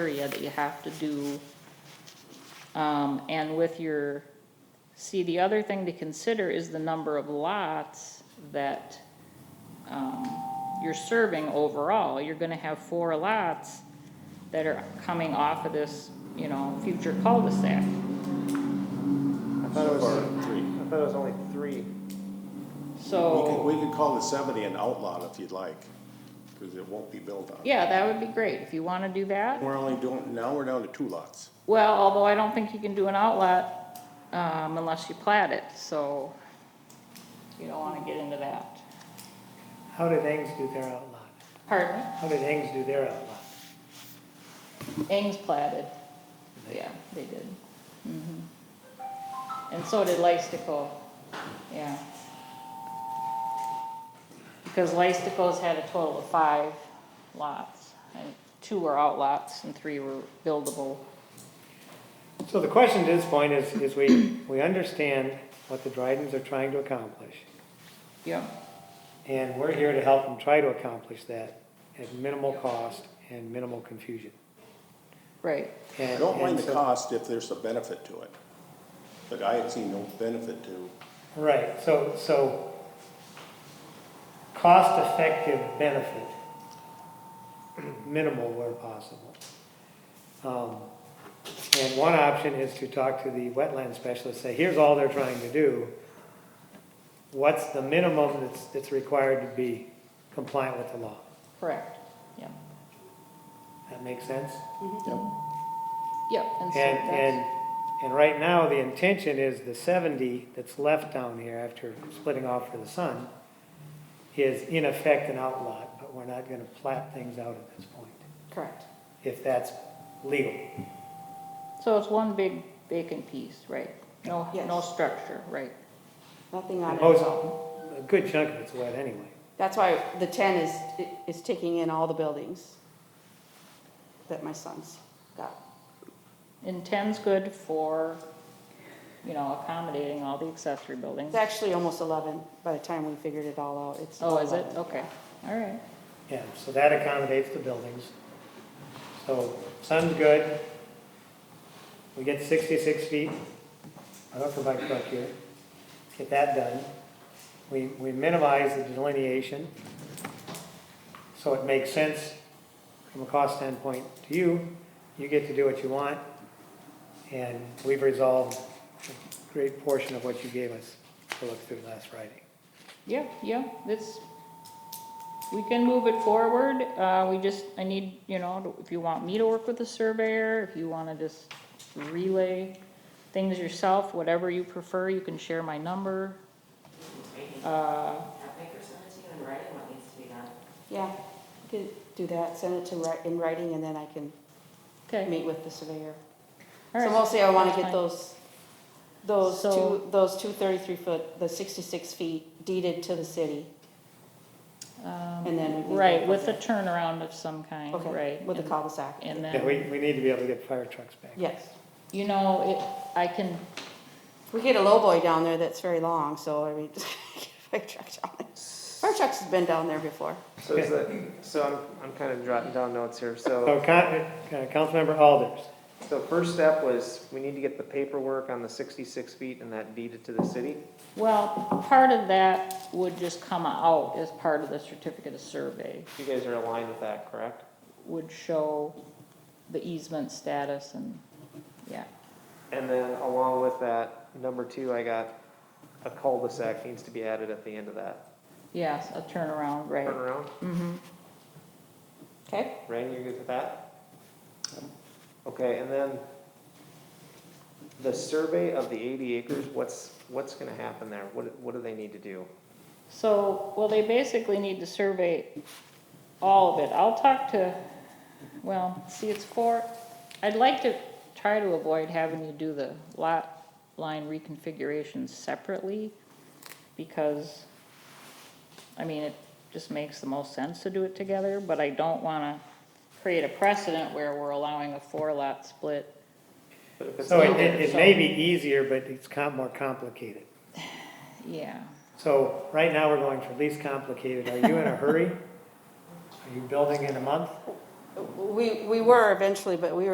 area that you have to do. Um, and with your, see, the other thing to consider is the number of lots that, um, you're serving overall. You're gonna have four lots that are coming off of this, you know, future cul-de-sac. I thought it was, Three. I thought it was only three. We could, So, we could call the seventy an outlaw if you'd like, because it won't be built on. yeah, that would be great if you wanna do that. We're only doing, now we're down to two lots. Well, although I don't think you can do an outlet, um, unless you plat it, so you don't wanna get into that. How did Engs do their outlot? Pardon? How did Engs do their outlot? Ings platted. Yeah, they did. Mhm. And so did Lystico, yeah. Because Lystico's had a total of five lots, and two were outlots and three were buildable. So the question to this point is, is we, we understand what the Drydens are trying to accomplish, Yeah, and we're here to help them try to accomplish that at minimal cost and minimal confusion. right. I And- don't mind and the so- cost if there's a benefit to it, but I had seen no benefit to, Right, so, so cost-effective benefit, minimal where possible. Um, And one option is to talk to the wetland specialist, say, here's all they're trying to do. What's the minimum that's, that's required to be compliant with the law? Correct, yeah, That makes sense? yep, and so And, that's, and, and right now, the intention is the seventy that's left down here after splitting off for the sun is in effect an outlot, but we're not gonna plat things out at this point, correct. if that's legal. So it's one big vacant piece, right? No, no Yes. structure, right? Nothing on And it. Most, a good chunk of it's wet anyway. That's why the ten is, is taking in all the buildings that my son's got. And ten's good for, you know, accommodating all the accessory buildings. It's actually almost eleven by the time we figured it all out. It's. Oh, is it? 11. Okay, all right. Yeah, so that accommodates the buildings. So sun's good. We get sixty-six feet of upper bike truck here. Get that done. We, we minimize the delineation. So it makes sense from a cost standpoint to you. You get to do what you want. And we've resolved a great portion of what you gave us to look through last Friday. Yeah, yeah, this, we can move it forward. Uh, we just, I need, you know, if you want me to work with the surveyor, if you wanna just relay things yourself, whatever you prefer, you can share my number. Uh, Have Baker send it to you in writing what needs to be done. Yeah, you can do that, send it to, wri- in writing, and then I can okay. meet with the all surveyor. So right. mostly I wanna that's get fine. those, those So- two, those two thirty-three foot, the sixty-six feet deeded to the city. Um, and then we can Right, go with a from turnaround of some kind, Okay, right? With the and- cul-de-sac. And Yeah, we, then, we need to be able to get fire trucks back. Yes. you know, it, I can, We get a lowboy down there that's very long, so I mean, fire truck down there. Fire trucks has been down there before. So is that, so I'm, I'm kind of jotting down notes here. So, So, Con- uh, Councilmember Alders, so first step was, we need to get the paperwork on the sixty-six feet and that deeded to the city. well, part of that would just come out as part of the certificate of survey, You guys are aligned with that, correct? would show the easement status and, yeah. And then along with that, number two, I got a cul-de-sac needs to be added at the end of that Yes, a turnaround, right. turnaround. Mm-hmm, Okay. Ryan, you good with that? Okay, and then the survey of the eighty acres, what's, what's gonna happen there? What, what do they need to do? so, well, they basically need to survey all of it. I'll talk to, well, see, it's four, I'd like to try to avoid having you do the lot line reconfiguration separately, because, I mean, it just makes the most sense to do it together, but I don't wanna create a precedent where we're allowing a four lot split. But if it's so it, not- it it may be easier, but it's com- more complicated. Yeah, So, right now, we're going for least complicated, are you in a hurry? Are you building in a month? We, we were eventually, but we were,